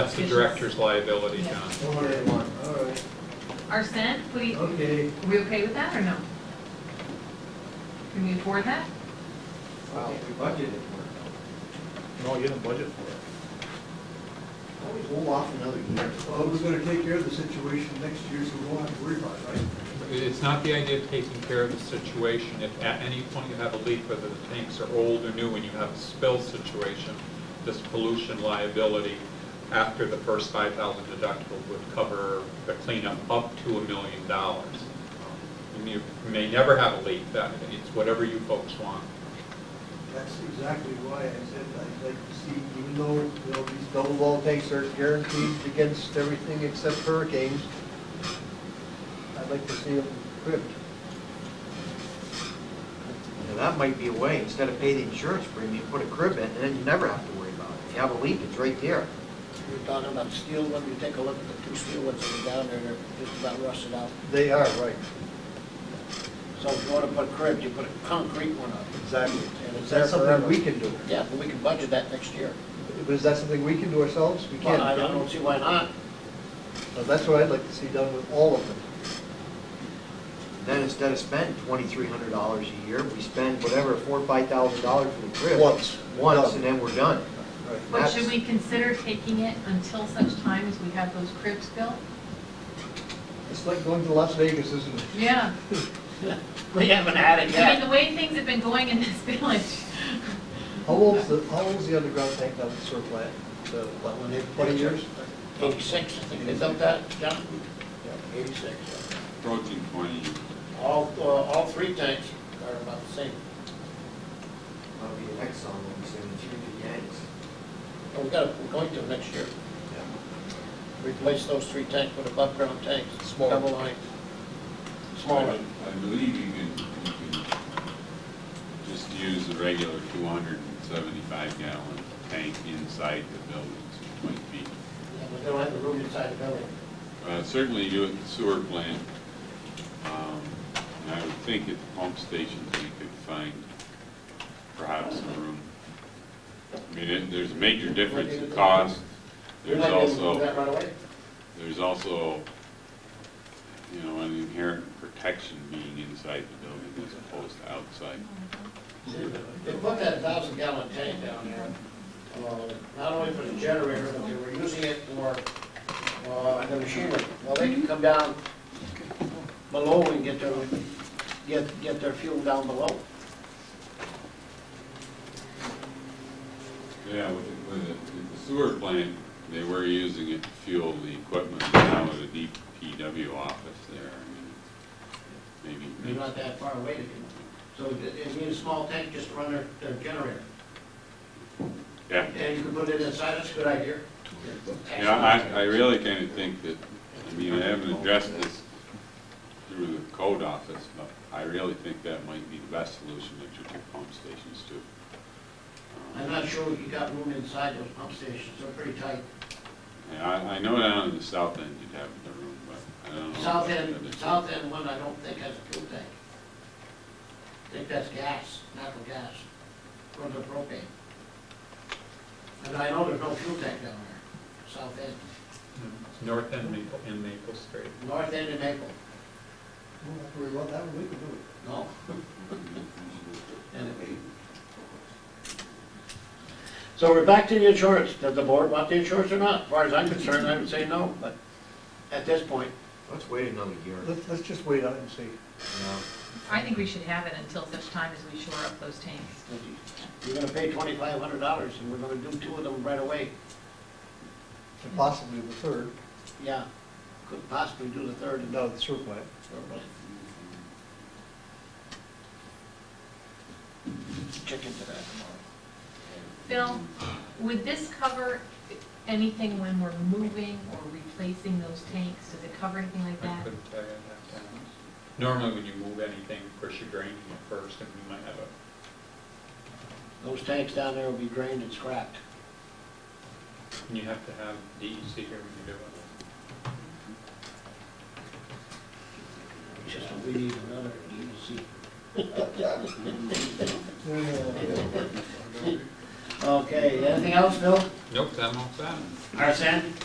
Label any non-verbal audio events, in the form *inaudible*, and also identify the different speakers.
Speaker 1: That's the director's liability,
Speaker 2: Yeah.
Speaker 1: John.
Speaker 3: One hundred and one, all right,
Speaker 2: Arsen, what do you,
Speaker 3: okay.
Speaker 2: are we okay with that or no? Can we afford that?
Speaker 3: Wow, we budgeted for
Speaker 4: No, you didn't budget for it.
Speaker 3: it. Always hold off another year.
Speaker 5: Well, we're gonna take care of the situation next year, so we won't have to worry about it, right?
Speaker 1: It's not the idea of taking care of the situation. If at any point you have a leak, whether the tanks are old or new, and you have a spill situation, this pollution liability after the first five thousand deductible would cover the cleanup up to a million dollars. Um, And You may never have a leak, that, it's whatever you folks want.
Speaker 5: That's exactly why I said I'd like to see,
Speaker 3: Even though, you know, these double wall tanks are guaranteed against everything except hurricanes, I'd like to see them equipped.
Speaker 6: Now, that might be a way, instead of pay the insurance premium, put a crib in, and then you never have to worry about it. If you have a leak, it's right there.
Speaker 7: You're talking about steel one, you take a look at the two steel ones that are down there, they're just about rusted out.
Speaker 3: They are, right.
Speaker 7: So if you want to put cribs, you put a concrete one up.
Speaker 3: Exactly.
Speaker 7: And
Speaker 3: Is
Speaker 7: it's there
Speaker 3: that something
Speaker 7: forever.
Speaker 3: we can do?
Speaker 7: Yeah, but we can budget that next year.
Speaker 3: But is that something we can do ourselves? We
Speaker 7: Well, I I
Speaker 3: can't.
Speaker 7: don't see why not. *laughs*
Speaker 3: So That's what I'd like to see done with all of them.
Speaker 6: Then instead of spending twenty-three hundred dollars a year, we spend whatever, four, or five thousand dollars for the crib.
Speaker 3: Once.
Speaker 6: Once, and then we're done.
Speaker 3: Right.
Speaker 2: But should
Speaker 6: That's-
Speaker 2: we consider taking it until such time as we have those cribs built?
Speaker 3: It's like going to Las Vegas, isn't it?
Speaker 2: Yeah.
Speaker 7: We haven't had it
Speaker 2: I mean,
Speaker 7: yet.
Speaker 2: the way things have been going in this *laughs* village.
Speaker 3: How old's the, how old's the underground tank down at the sewer plant? The, what, when they, twenty years?
Speaker 7: Eighty-six, I think they built that, John? Eighty-six.
Speaker 8: approaching 20 years.
Speaker 7: All, uh, all three tanks are about the same.
Speaker 6: That'll be the next song, we'll sing, it's usually Yanks.
Speaker 7: Well, we got, we're going to next year. Replace those three tanks with above-ground tanks.
Speaker 3: Small.
Speaker 7: Double line.
Speaker 8: I
Speaker 7: Smaller.
Speaker 8: I believe you can, you can just use the regular 275 gallon tank inside the buildings, it might be.
Speaker 7: Yeah, but they don't have the room inside the building.
Speaker 8: Uh, Certainly do it at the sewer plant. Um, And I would think at the pump stations, we could find perhaps some room. I mean, it- there's a major difference in cost.
Speaker 7: You're
Speaker 8: There's
Speaker 7: not gonna do
Speaker 8: also.
Speaker 7: that right away?
Speaker 8: There's also, you know, an inherent protection being inside the building as opposed to outside.
Speaker 7: They put that thousand gallon tank down there, uh, not only for the generator, but they were using it for, uh, the machinery. Well, they can come down below and get their, get, get their fuel down below.
Speaker 8: Yeah, with the- with the with the sewer plant, they were using it to fuel the equipment now at a DPW office there. I mean, Maybe,
Speaker 7: They're
Speaker 8: maybe
Speaker 7: not that far away to do. So it, it needs a small tank just to run their, their generator.
Speaker 8: yeah.
Speaker 7: And you can put it inside, that's a good idea.
Speaker 8: Yeah, I, I really kind of think that, I mean, I haven't addressed this through the code office, but I really think that might be the best solution that your two pump stations do.
Speaker 7: I'm not sure if you got room inside those pump stations, they're pretty tight.
Speaker 8: Yeah, I, I know down in the south end you'd have the room, but I don't know.
Speaker 7: South
Speaker 8: about
Speaker 7: end,
Speaker 8: the other
Speaker 7: south end one, I don't think has a fuel tank. I think that's gas, natural gas, or the propane. And I know there's no fuel tank down there, south end,
Speaker 1: It's North End Maple, and Maple Street.
Speaker 7: north end and Maple,
Speaker 3: Don't have to worry about that, we can do it.
Speaker 7: no? *laughs* So we're back to the insurance, does the board want the insurance or not? As far as I'm concerned, I would say no, but at this point,
Speaker 6: Let's wait another year.
Speaker 3: Let's, let's just wait on it and see.
Speaker 6: No.
Speaker 2: I think we should have it until such time as we shore up those tanks.
Speaker 7: you're gonna pay twenty-five hundred dollars, and we're gonna do two of them right away.
Speaker 3: And possibly the third,
Speaker 7: Yeah, could possibly do the third and
Speaker 3: no, the sewer plant.
Speaker 7: Check into that tomorrow.
Speaker 2: Bill, would this cover anything when we're moving or replacing those tanks? Does it cover anything like
Speaker 1: I
Speaker 2: that?
Speaker 1: couldn't tell you that. Normally, when you move anything, of course, you drain it first, and you might have a
Speaker 7: Those tanks down there will be drained and scrapped.
Speaker 1: And you have to have DEC here when you do it.
Speaker 7: It's just we need another EDC.
Speaker 3: Yeah.
Speaker 7: Okay, anything else, Bill?
Speaker 1: Nope, I'm all set.
Speaker 7: Arson?